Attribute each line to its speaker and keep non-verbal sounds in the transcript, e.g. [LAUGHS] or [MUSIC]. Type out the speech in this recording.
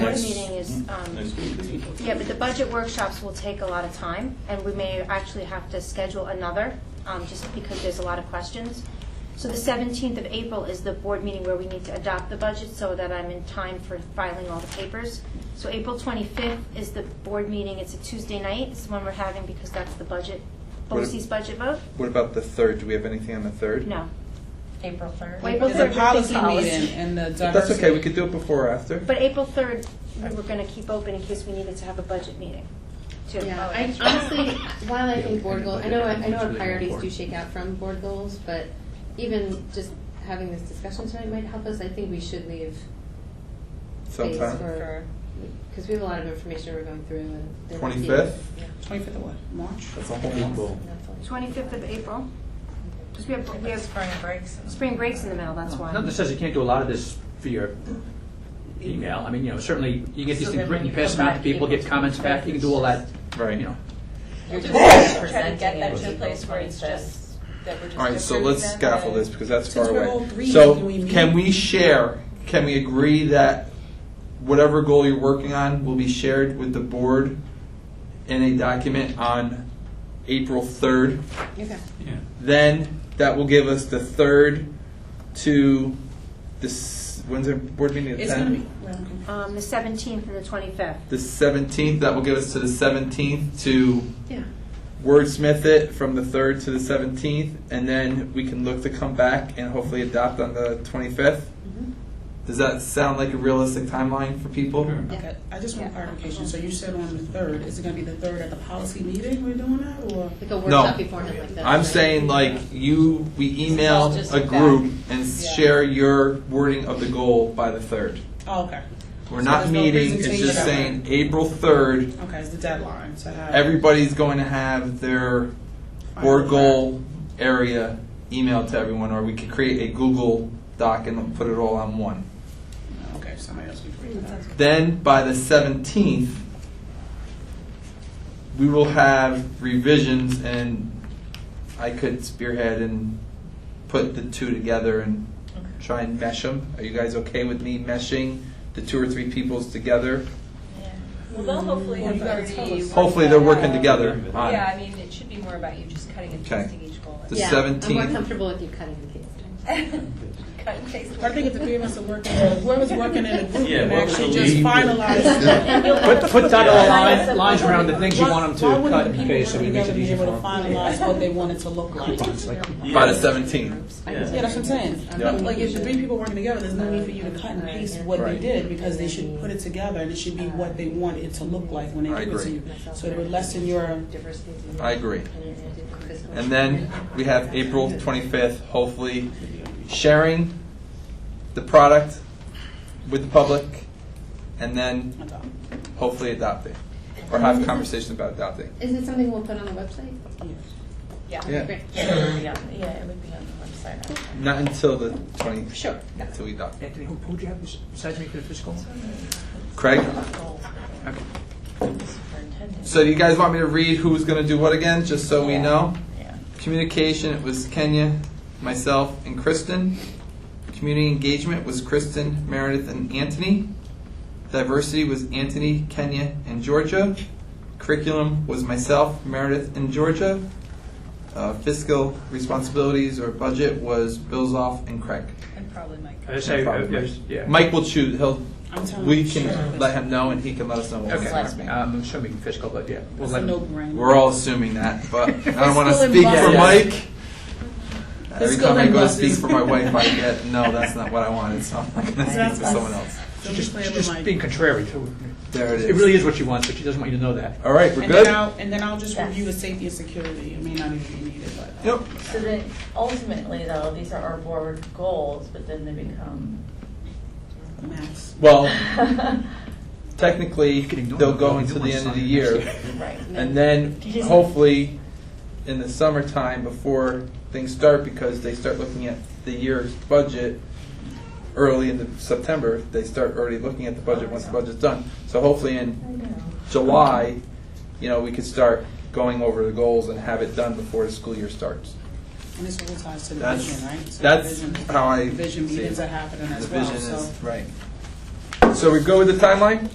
Speaker 1: board
Speaker 2: Next-
Speaker 1: meeting is,
Speaker 3: Mm-hmm.
Speaker 1: um,
Speaker 2: Next week, we need to-
Speaker 1: yeah, but the budget workshops will take a lot of time, and we may actually have to schedule another, um, just because there's a lot of questions. So the 17th of April is the board meeting where we need to adopt the budget so that I'm in time for filing all the papers. So April 25th is the board meeting, it's a Tuesday night, it's the one we're having because that's the budget,
Speaker 4: What-
Speaker 1: BOCES budget vote?
Speaker 4: What about the third? Do we have anything on the third?
Speaker 1: No.
Speaker 5: April 3rd.
Speaker 1: April
Speaker 6: There's a
Speaker 1: 3rd,
Speaker 6: policy
Speaker 1: policy.
Speaker 6: meeting and the
Speaker 4: But
Speaker 6: diversity.
Speaker 4: That's okay, we could do it before or after.
Speaker 1: But April 3rd, we were going to keep open in case we needed to have a budget meeting, too. Oh,
Speaker 7: Yeah,
Speaker 6: Oh,
Speaker 7: I honestly, while I think board goals, I know, I know our priorities do shake out from board goals, but even just having this discussion tonight might help us. I think we should leave space
Speaker 4: Sometime.
Speaker 7: for, because we have a lot of information we're going through and. there might be-
Speaker 4: 25th?
Speaker 7: Yeah.
Speaker 6: Twenty-fifth of what, March?
Speaker 4: That's a whole month.
Speaker 7: That's all.
Speaker 1: 25th of April, because we have, we have
Speaker 5: spring breaks.
Speaker 1: spring breaks in the middle, that's why.
Speaker 3: Not that says you can't do a lot of this via email. I mean, you know, certainly you get these
Speaker 5: So
Speaker 3: things
Speaker 5: then
Speaker 3: written,
Speaker 5: when
Speaker 3: you
Speaker 5: you
Speaker 3: pass them
Speaker 5: come
Speaker 3: out to
Speaker 5: back,
Speaker 3: people,
Speaker 5: people
Speaker 3: get
Speaker 5: can
Speaker 3: comments back, you can do all that,
Speaker 4: Right.
Speaker 3: you know.
Speaker 5: You're just
Speaker 8: trying to
Speaker 5: presenting
Speaker 8: get
Speaker 5: it
Speaker 8: that
Speaker 5: as
Speaker 8: to a
Speaker 5: April
Speaker 8: place where it's
Speaker 5: 25th.
Speaker 8: just, that we're just.
Speaker 4: All right, so
Speaker 8: approving
Speaker 4: let's
Speaker 8: them
Speaker 4: scaffold
Speaker 8: and-
Speaker 4: this because that's
Speaker 6: Since
Speaker 4: far
Speaker 6: we're all
Speaker 4: away.
Speaker 6: three,
Speaker 4: So
Speaker 6: can we meet?
Speaker 4: can we share, can we agree that whatever goal you're working on will be shared with the board in a document on April 3rd?
Speaker 7: Okay.
Speaker 2: Yeah.
Speaker 4: Then that will give us the 3rd to this, when's our board meeting? The
Speaker 6: It's gonna
Speaker 4: 10th?
Speaker 6: be, well, okay.
Speaker 1: Um, the 17th and the 25th.
Speaker 4: The 17th, that will give us to the 17th to
Speaker 7: Yeah.
Speaker 4: wordsmith it from the 3rd to the 17th, and then we can look to come back and hopefully adopt on the 25th.
Speaker 6: Mm-hmm.
Speaker 7: Mhm.
Speaker 4: Does that sound like a realistic timeline for people?
Speaker 2: Sure.
Speaker 7: Yeah.
Speaker 6: Okay, I just want clarification, so you said on the third, is it gonna be the third at the policy meeting we're doing that, or?
Speaker 7: Like a workshop beforehand like that.
Speaker 4: I'm
Speaker 7: right?
Speaker 4: saying like you, we email
Speaker 5: Just
Speaker 4: a
Speaker 5: back.
Speaker 4: group and
Speaker 6: Yeah.
Speaker 4: share your wording of the goal by the 3rd.
Speaker 6: Oh, okay,
Speaker 4: We're
Speaker 6: So
Speaker 4: not
Speaker 6: there's no
Speaker 4: meeting, it's
Speaker 6: presentation
Speaker 4: just
Speaker 6: about
Speaker 4: saying April 3rd,
Speaker 6: okay, it's the deadline to have.
Speaker 4: everybody's going to have their board goal area emailed to everyone, or we could create a Google Doc and put it all on one.
Speaker 6: Okay, somebody else can read that.
Speaker 4: Then by the 17th, we will have revisions, and I could spearhead and put the two together and try and mesh them. Are you guys okay with me meshing the two or three peoples together?
Speaker 8: Well, they'll hopefully
Speaker 6: Well,
Speaker 8: have
Speaker 6: you gotta tell
Speaker 8: already.
Speaker 6: us.
Speaker 4: Hopefully, they're working together on
Speaker 8: Yeah, I
Speaker 4: it.
Speaker 8: mean, it should be more about you just cutting and
Speaker 4: Okay.
Speaker 8: pasting each goal.
Speaker 4: The
Speaker 8: [LAUGHS]
Speaker 7: Yeah, I'm
Speaker 4: 17th.
Speaker 7: more comfortable with you cutting the case.
Speaker 8: Cut and paste.
Speaker 6: I think if the three of us are working, whoever's working in a group
Speaker 2: Yeah,
Speaker 6: can
Speaker 2: what was
Speaker 6: actuted
Speaker 2: the
Speaker 6: just
Speaker 2: lead?
Speaker 6: finalize.
Speaker 3: Put, put dotted
Speaker 2: Yeah.
Speaker 3: line- lines around the things you want
Speaker 6: Why
Speaker 3: them to
Speaker 6: wouldn't
Speaker 3: cut
Speaker 6: the
Speaker 3: and
Speaker 6: people
Speaker 3: paste, so it
Speaker 6: working
Speaker 3: makes it
Speaker 6: together
Speaker 3: easier
Speaker 6: be
Speaker 3: for
Speaker 6: able to
Speaker 3: them.
Speaker 6: Finalize what they want it to look like.
Speaker 4: By the 17th.
Speaker 7: Yeah,
Speaker 6: Yeah, that's what I'm saying. Like, if the three people working together, there's no need for you to cut and paste what they did, because they should put it together, and it should be what they want it to look like when
Speaker 4: I
Speaker 6: they give it to
Speaker 4: agree.
Speaker 6: you. So it would lessen your,
Speaker 7: Diversity.
Speaker 4: I agree. And then we have April 25th, hopefully sharing the product with the public and then hopefully adopting or have conversations about adopting.
Speaker 7: Is it something we'll put on the website?
Speaker 4: Yeah.
Speaker 7: Great.
Speaker 5: Yeah, it would be on, yeah, it would be on the website.
Speaker 4: Not until the 20,
Speaker 7: Sure.
Speaker 4: until we adopt.
Speaker 3: Anthony, who, who'd you have besides me for the fiscal?
Speaker 4: Craig?
Speaker 3: Okay.
Speaker 5: Superintendent.
Speaker 4: So do you guys want me to read who's going to do what again, just so we
Speaker 5: Yeah.
Speaker 4: know?
Speaker 5: Yeah.
Speaker 4: Communication, it was Kenya, myself, and Kristen. Community engagement was Kristen, Meredith, and Anthony. Diversity was Anthony, Kenya, and Georgia. Curriculum was myself, Meredith, and Georgia. Uh, fiscal responsibilities or budget was Bilzoff and Craig.
Speaker 8: And probably Mike.
Speaker 3: I say, uh, yes, yeah.
Speaker 4: Mike will choose. He'll.
Speaker 6: I'm telling you.
Speaker 4: We can let him know, and he can let us know. What
Speaker 3: Okay,
Speaker 4: his
Speaker 5: Last
Speaker 4: next
Speaker 5: name.
Speaker 4: meeting.
Speaker 3: I'm assuming fiscal, but yeah. we'll
Speaker 6: It's
Speaker 3: let
Speaker 6: a
Speaker 3: him-
Speaker 6: no-brainer.
Speaker 4: We're all assuming that,
Speaker 6: [LAUGHS]
Speaker 4: but I don't want to
Speaker 6: Fiscal and
Speaker 4: speak for
Speaker 6: buses.
Speaker 4: Mike. Every
Speaker 6: Fiscal
Speaker 4: time I
Speaker 6: and
Speaker 4: go to
Speaker 6: buses.
Speaker 4: speak for my wife, I
Speaker 6: [LAUGHS]
Speaker 4: get, no, that's not what I wanted, so I'm not going to
Speaker 6: That's
Speaker 4: speak for
Speaker 6: us.
Speaker 4: someone else.
Speaker 6: Don't be
Speaker 3: Just,
Speaker 6: playing with
Speaker 3: just
Speaker 6: my-
Speaker 3: being contrary to,
Speaker 4: There it
Speaker 3: it really
Speaker 4: is.
Speaker 3: is what she wants, but she doesn't want you to know that.
Speaker 4: All right, we're
Speaker 6: And then
Speaker 4: good?
Speaker 6: I'll, and then I'll just
Speaker 5: Yes.
Speaker 6: review the safety and security. It may not even be needed, but. um,
Speaker 4: Yep.
Speaker 5: So then ultimately though, these are our board goals, but then they become.
Speaker 6: Max.
Speaker 4: Well, technically,
Speaker 3: You can ignore
Speaker 4: they'll
Speaker 3: it.
Speaker 4: go
Speaker 3: You
Speaker 4: until
Speaker 3: don't
Speaker 4: the
Speaker 3: want
Speaker 4: end of
Speaker 3: to
Speaker 4: the
Speaker 3: sign it next
Speaker 4: year,
Speaker 5: Right.
Speaker 4: and then
Speaker 5: Yes.
Speaker 4: hopefully in the summertime before things start, because they start looking at the year's budget early in the September, they start already looking at the budget once the budget's done. So hopefully in
Speaker 5: I know.
Speaker 4: July, you know, we could start going over the goals and have it done before the school year starts.
Speaker 6: And this all ties to the
Speaker 4: That's-
Speaker 6: vision, right? So the
Speaker 4: that's
Speaker 6: vision-
Speaker 4: how I
Speaker 6: the Vision
Speaker 4: see it.
Speaker 6: meetings are happening
Speaker 4: The
Speaker 6: as well,
Speaker 4: vision
Speaker 6: so.
Speaker 4: is, right. So we go with the timeline?